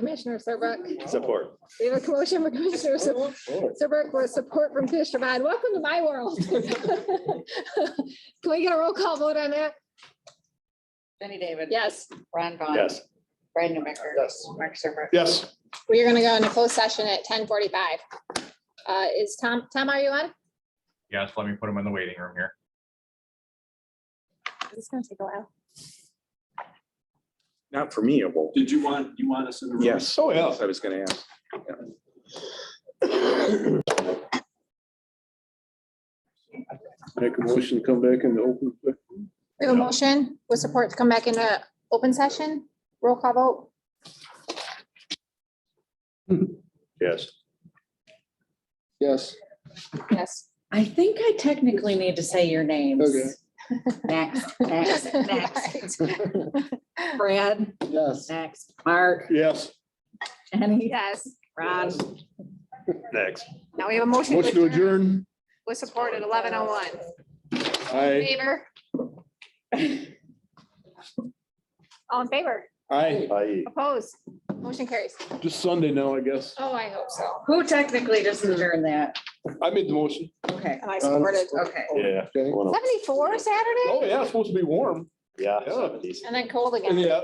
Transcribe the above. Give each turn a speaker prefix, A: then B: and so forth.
A: Commissioner Serbrook.
B: Support.
A: We have a motion for Commissioner Ser- Serbrook with support from Commissioner Vine. Welcome to my world. Can we get a roll call vote on that?
C: Jenny David.
A: Yes,
C: Ron Vaughn.
B: Yes.
C: Brad Newbecker.
B: Yes.
C: Mark Serber.
B: Yes.
A: we are gonna go into closed session at ten forty-five. Uh, is Tom, Tom, are you on?
D: Yes, let me put them in the waiting room here.
A: This is gonna take a while.
E: Not for me, it won't.
F: Did you want, you want us in the room?
E: Yes,
B: Oh,
E: I was gonna ask.
G: Make a motion, to come back in the open.
A: We have a motion with support to come back into open session. Roll call vote.
B: Yes.
G: Yes.
A: Yes.
C: I think I technically need to say your names.
G: Okay.
C: Next, next, next. Brad,
G: Yes.
C: next. Mark,
G: Yes.
C: Jenny,
A: Yes.
C: Ron.
B: Next.
A: Now we have a motion
G: Motion to
A: to adjourn
G: adjourn.
A: with support at eleven oh one.
G: Aye.
A: Favor? All in favor?
G: Aye.
B: Aye.
A: Opposed? Motion carries.
G: Just Sunday now, I guess.
A: Oh, I hope so.
C: Who technically just adjourned that?
G: I made the motion.
C: Okay,
A: And I supported.
C: okay.
B: Yeah.
G: Okay.
A: Seventy-four Saturday
G: Oh, yeah, it's supposed to be warm.
B: Yeah.
G: Yeah.
A: Oh. and then cold again.
G: Yeah.